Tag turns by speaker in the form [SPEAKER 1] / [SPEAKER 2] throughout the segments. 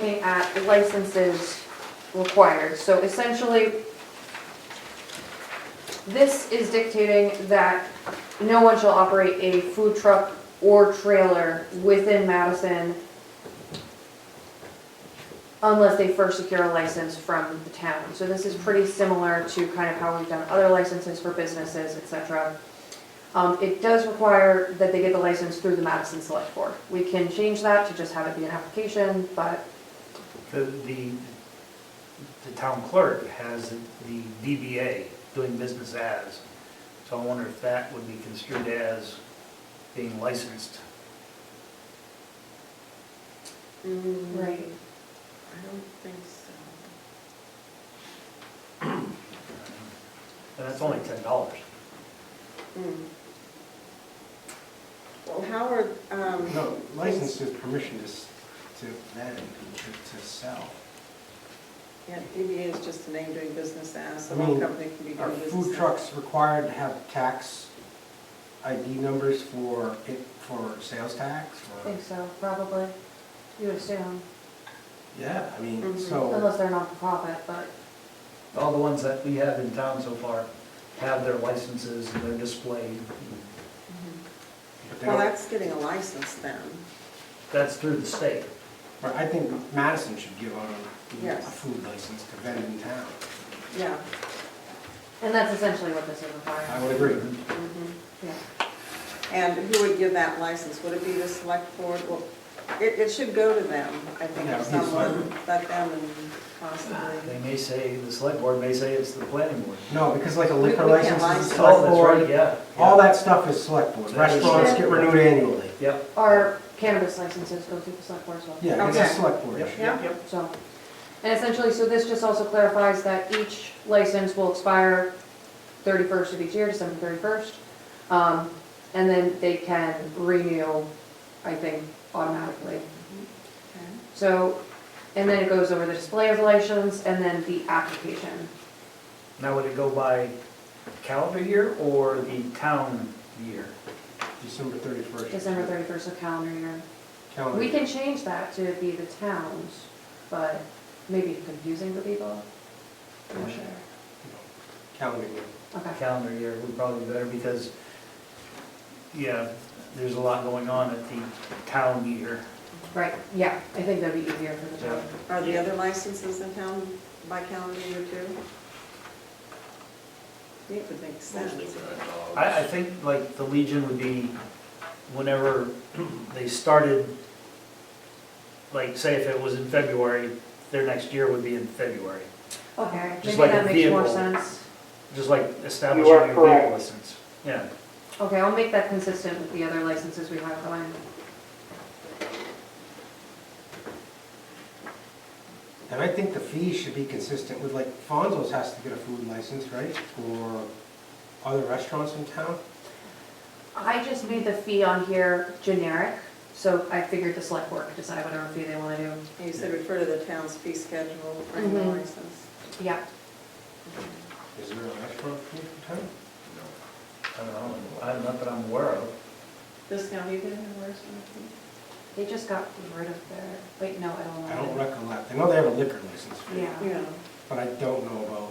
[SPEAKER 1] that license is required. So essentially, this is dictating that no one shall operate a food truck or trailer within Madison unless they first secure a license from the town. So this is pretty similar to kind of how we've done other licenses for businesses, et cetera. Um, It does require that they get the license through the Madison Select Board. We can change that to just have it be an application, but
[SPEAKER 2] The, the, the town clerk has the DBA, doing business as, so I wonder if that would be construed as being licensed.
[SPEAKER 3] Mm.
[SPEAKER 1] Right.
[SPEAKER 3] I don't think so.
[SPEAKER 2] And that's only ten dollars.
[SPEAKER 3] Hmm. Well, Howard, um,
[SPEAKER 4] No, license is permission to, s- to then, to to sell.
[SPEAKER 3] yeah, DBA is just a name doing business as, so
[SPEAKER 4] I
[SPEAKER 3] one
[SPEAKER 4] mean,
[SPEAKER 3] company can be
[SPEAKER 4] Are
[SPEAKER 3] doing business.
[SPEAKER 4] food
[SPEAKER 3] as.
[SPEAKER 4] trucks required to have tax ID numbers for, it- for sales tax?
[SPEAKER 1] I
[SPEAKER 4] or-
[SPEAKER 1] think so, probably. You would assume,
[SPEAKER 4] Yeah, I mean,
[SPEAKER 3] Mhm.
[SPEAKER 4] so,
[SPEAKER 1] unless they're not for profit, but
[SPEAKER 2] All the ones that we have in town so far have their licenses and they're displayed.
[SPEAKER 4] but they
[SPEAKER 3] Well,
[SPEAKER 4] don't-
[SPEAKER 3] that's getting a license then.
[SPEAKER 2] That's through the state.
[SPEAKER 4] but I think Madison should give out a- a
[SPEAKER 3] Yes.
[SPEAKER 4] food license to vend in town.
[SPEAKER 3] Yeah.
[SPEAKER 1] And that's essentially what this is
[SPEAKER 4] I
[SPEAKER 1] requiring,
[SPEAKER 4] would agree.
[SPEAKER 3] mhm.
[SPEAKER 1] yeah.
[SPEAKER 3] And who would give that license? Would it be the select board? Well, it, it should go to them, I think,
[SPEAKER 4] Yeah,
[SPEAKER 3] or
[SPEAKER 4] it's like-
[SPEAKER 3] someone, let them and possibly.
[SPEAKER 2] They may say, the select board may say it's the planning board.
[SPEAKER 4] No, because like a
[SPEAKER 3] We-
[SPEAKER 4] liquor
[SPEAKER 3] we can't
[SPEAKER 4] license is
[SPEAKER 3] license.
[SPEAKER 4] select
[SPEAKER 2] Oh, that's right,
[SPEAKER 4] board,
[SPEAKER 2] yeah.
[SPEAKER 4] all that stuff is select board.
[SPEAKER 2] That's-
[SPEAKER 4] Restaurants get renewed annually.
[SPEAKER 2] Yep.
[SPEAKER 1] Our cannabis licenses go through the select board as well.
[SPEAKER 4] Yeah, it's a
[SPEAKER 3] Okay.
[SPEAKER 4] select board
[SPEAKER 2] Yep,
[SPEAKER 4] issue.
[SPEAKER 2] yep, yep.
[SPEAKER 1] So, and essentially, so this just also clarifies that each license will expire thirty-first of each year, December thirty-first. Um, and then they can renew, I think, automatically.
[SPEAKER 3] Okay.
[SPEAKER 1] So, and then it goes over the display of the license and then the application.
[SPEAKER 2] Now, would it go by calendar year or the town year?
[SPEAKER 4] December 31st.
[SPEAKER 1] December thirty-first of calendar year.
[SPEAKER 4] Calendar.
[SPEAKER 1] We can change that to be the towns, but maybe confusing for people. I'm not sure.
[SPEAKER 4] Calendar year.
[SPEAKER 1] Okay.
[SPEAKER 2] calendar year would probably be better because, yeah, there's a lot going on at the town year.
[SPEAKER 1] Right, yeah, I think that'd be easier for the town.
[SPEAKER 3] Are the other licenses in town by calendar year too? It would make sense.
[SPEAKER 5] Mostly for uh, dogs.
[SPEAKER 2] I, I think like the Legion would be whenever they started, like, say if it was in February, their next year would be in February,
[SPEAKER 1] Okay, maybe
[SPEAKER 2] Just like
[SPEAKER 1] that
[SPEAKER 2] a
[SPEAKER 1] makes more
[SPEAKER 2] vehicle.
[SPEAKER 1] sense.
[SPEAKER 2] just like establishing your vehicle license. Yeah,
[SPEAKER 1] Okay, I'll make that consistent with the other licenses we have going.
[SPEAKER 4] And I think the fees should be consistent with, like, Fonzo's has to get a food license, right? Or other restaurants in town?
[SPEAKER 1] I just made the fee on here generic, so I figured the select board could decide whatever fee they want to do.
[SPEAKER 3] You said refer to the town's fee schedule for any
[SPEAKER 1] Mhm.
[SPEAKER 3] license.
[SPEAKER 1] Yeah,
[SPEAKER 4] Is there a restaurant fee in town?
[SPEAKER 5] No.
[SPEAKER 2] I don't know, I'm not that I'm aware of.
[SPEAKER 3] This now, you didn't have a restaurant fee?
[SPEAKER 1] they just got rid of their, wait, no, I don't know.
[SPEAKER 4] I don't recollect. I know they have a liquor license fee,
[SPEAKER 1] Yeah,
[SPEAKER 3] Yeah.
[SPEAKER 4] but I don't know about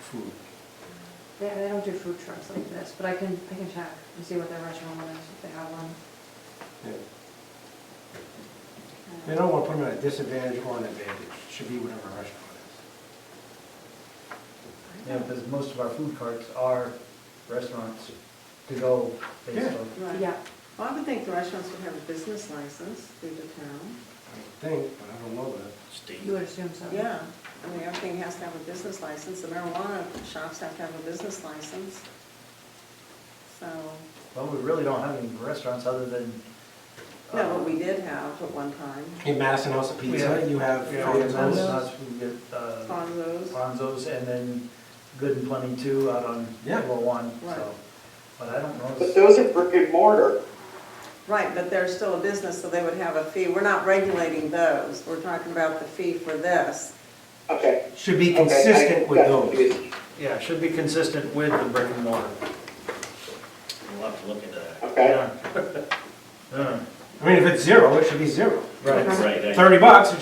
[SPEAKER 4] food.
[SPEAKER 1] they, they don't do food trucks like this, but I can, I can check and see what their restaurant one is, if they have one.
[SPEAKER 4] Yeah. They don't want to put them at a disadvantage or an advantage. It Should be whatever restaurant it
[SPEAKER 2] Yeah, because most of our food carts are restaurants to go based
[SPEAKER 4] Yeah.
[SPEAKER 2] on.
[SPEAKER 3] Right.
[SPEAKER 1] Yeah,
[SPEAKER 3] Well, I would think the restaurants would have a business license through the town.
[SPEAKER 4] is. I would think, but I don't know that.
[SPEAKER 5] State.
[SPEAKER 1] you would assume so.
[SPEAKER 3] Yeah, I mean, everything has to have a business license, the marijuana shops have to have a business license. So,
[SPEAKER 2] Well, we really don't have any restaurants other than. uh,
[SPEAKER 3] no, but we did have at one time,
[SPEAKER 4] In Madison House of Pizza,
[SPEAKER 2] Yeah.
[SPEAKER 4] you have
[SPEAKER 2] We have
[SPEAKER 4] Fonzo's.
[SPEAKER 2] Fonzo's, we get uh,
[SPEAKER 3] Fonzo's.
[SPEAKER 2] Fonzo's, and then Good and Plenty Two out on
[SPEAKER 4] Yeah.
[SPEAKER 2] Route One,
[SPEAKER 3] Right.
[SPEAKER 2] so. But I don't know.
[SPEAKER 6] But those are brick and mortar.
[SPEAKER 3] Right, but they're still a business, so they would have a fee. We're not regulating those. We're talking about the fee for this.
[SPEAKER 6] Okay.
[SPEAKER 4] Should be
[SPEAKER 6] okay, I
[SPEAKER 4] consistent with
[SPEAKER 6] got
[SPEAKER 4] those.
[SPEAKER 6] confused.
[SPEAKER 2] Yeah, it should be consistent with the brick and mortar.
[SPEAKER 5] We'll have to look into that.
[SPEAKER 6] Okay.
[SPEAKER 2] Yeah. Yeah.
[SPEAKER 4] I mean, if it's zero, it should be zero.
[SPEAKER 2] Right.
[SPEAKER 5] Right, I-
[SPEAKER 4] Thirty bucks,